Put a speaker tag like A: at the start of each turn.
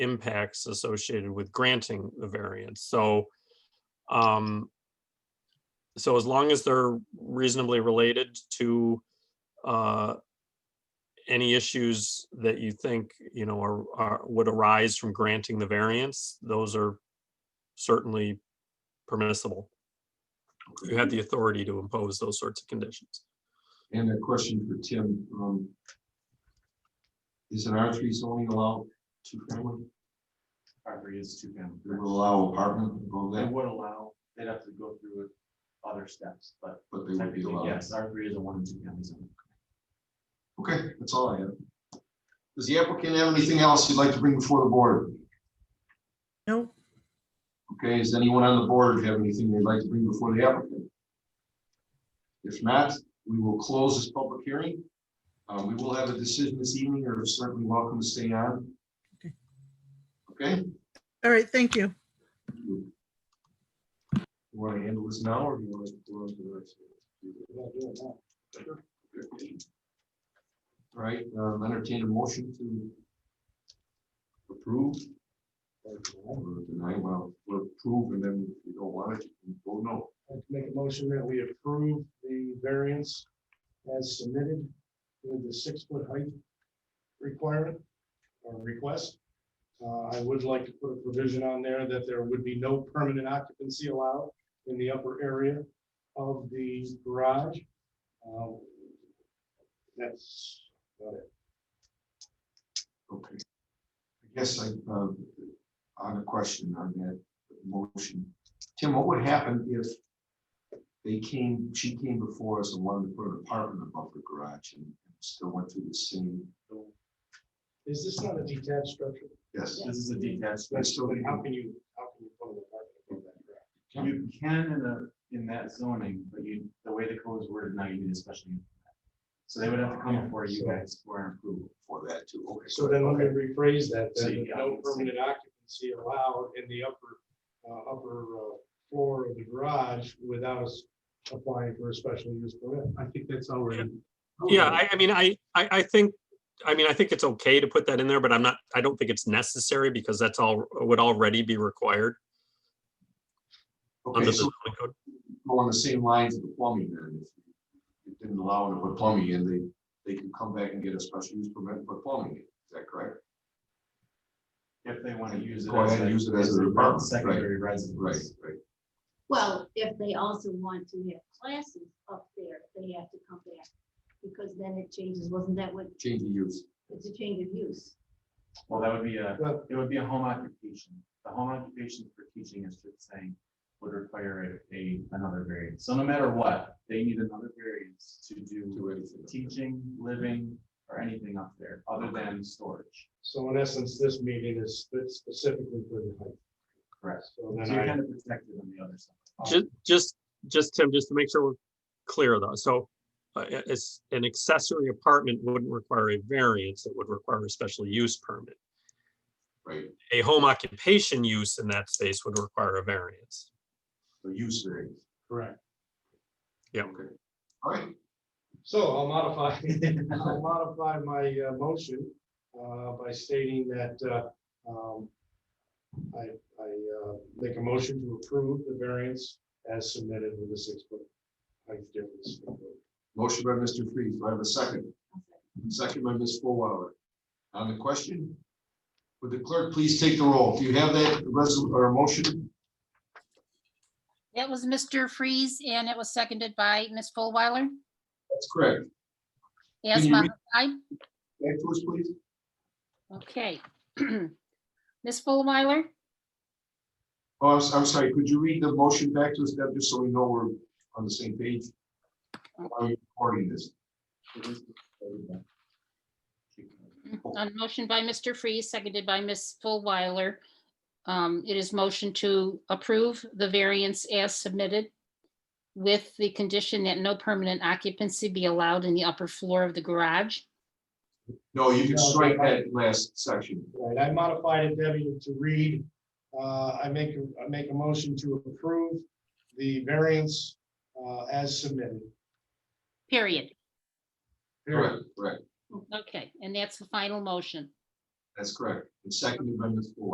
A: impacts associated with granting the variance, so. Um. So as long as they're reasonably related to, uh. Any issues that you think, you know, are, are, would arise from granting the variance, those are certainly permissible. You have the authority to impose those sorts of conditions.
B: And a question for Tim. um, Is an R three zoning allow two family?
C: property is two family.
B: It will allow apartment, all
C: They
B: that,
C: would allow, they'd have to go through other steps, but
B: but they would be
C: technically,
B: allowed.
C: yes, R three is a one and two family zone.
B: Okay, that's all I have. Does the applicant have anything else you'd like to bring before the board?
D: No,
B: Okay, does anyone on the board have anything they'd like to bring before the applicant? If not, we will close this public hearing. Uh, we will have a decision this evening, or certainly welcome to stay on.
D: Okay.
B: Okay?
D: all right, thank you.
B: You Want to handle this now, or do you want to do it for the rest? of the- Okay. All right, um, entertain a motion to approve. or Deny, well, we'll approve, and then if you don't want it, you can vote no.
E: I'd like to make a motion that we approve the variance as submitted with the six-foot height requirement or request. Uh, I would like to put a provision on there that there would be no permanent occupancy allowed in the upper area of the garage. Um, That's about it.
B: Okay. I guess I, uh, on a question on that motion, Tim, what would happen if they came, she came before us and wanted to put an apartment above the garage and still went through the same,
E: Is this not a detached structure?
B: yes,
C: This is a detached.
B: That's still-
E: How can you, how can you put an apartment above that garage?
C: You can in the, in that zoning, but you, the way the code is worded now, you need a special. use for that. So they would have to come before you guys for an approval.
B: for that too, okay.
E: So then let me rephrase that,
C: So
E: then
C: you got
E: no
C: it.
E: permanent occupancy allowed in the upper, uh, upper, uh, floor of the garage without us applying for a special use permit. I think that's already.
A: Yeah, I, I mean, I, I, I think, I mean, I think it's okay to put that in there, but I'm not, I don't think it's necessary because that's all, would already be required under
B: Okay,
A: the
B: so
A: zoning code.
B: along the same lines of the plumbing then, if you didn't allow them to put plumbing in, they, they could come back and get a special use permit and put plumbing in, is that correct?
C: If they want to use it.
B: Go ahead
C: a-
B: and use it as
C: a
B: an apartment, right,
C: Secondary residence.
B: Right, right,
F: Well, if they also want to have classes up there, they have to come back, because then it changes, wasn't that what,
B: change the use,
F: it's a change of use.
C: Well, that would be a,
E: Well-
C: it would be a home occupation. The home occupation for teaching is just saying would require a- a, another variance. So no matter what, they need another variance to do
B: do anything.
C: teaching, living, or anything up there other than storage.
E: So in essence, this meeting is spe- specifically for the height.
C: Correct.
E: So
C: So
E: then
C: you're
E: I,
C: kind of protected on the other side.
A: Just, just, just Tim, just to make sure we're clear though, so uh, i- it's an accessory apartment wouldn't require a variance, it would require a special use permit.
B: Right,
A: A home occupation use in that space would require a variance.
B: the use variance.
E: correct.
B: Okay. All right,
E: So I'll modify, I'll modify my, uh, motion, uh, by stating that, uh, um, I, I, uh, make a motion to approve the variance as submitted with a six-foot height difference.
B: motion by Mr. Freeze, do I have a second? Second by Ms. Fullwiler. On the question, would the clerk please take the roll? Do you have that resol, or motion?
G: It was Mr. Freeze and it was seconded by Ms. Fullweiler.
B: That's correct.
G: Yes,
B: you read-
G: modified.
B: Back to us, please.
G: Okay. Ms. Fullweiler,
B: Oh, I'm, s- I'm sorry, could you read the motion back to us, Deb, just so we know we're on the same page? Are you recording this?
G: on motion by Mr. Freeze, seconded by Ms. Fullweiler. um, It is motion to approve the variance as submitted with the condition that no permanent occupancy be allowed in the upper floor of the garage.
B: No, you can strike that last section.
E: Right, I modified it, Debbie, to read, uh, I make, a- I make a motion to approve the variance, uh, as submitted.
G: period.
B: Correct, correct.
G: Okay, and that's the final motion.
B: That's correct. It's seconded by Ms. Ford.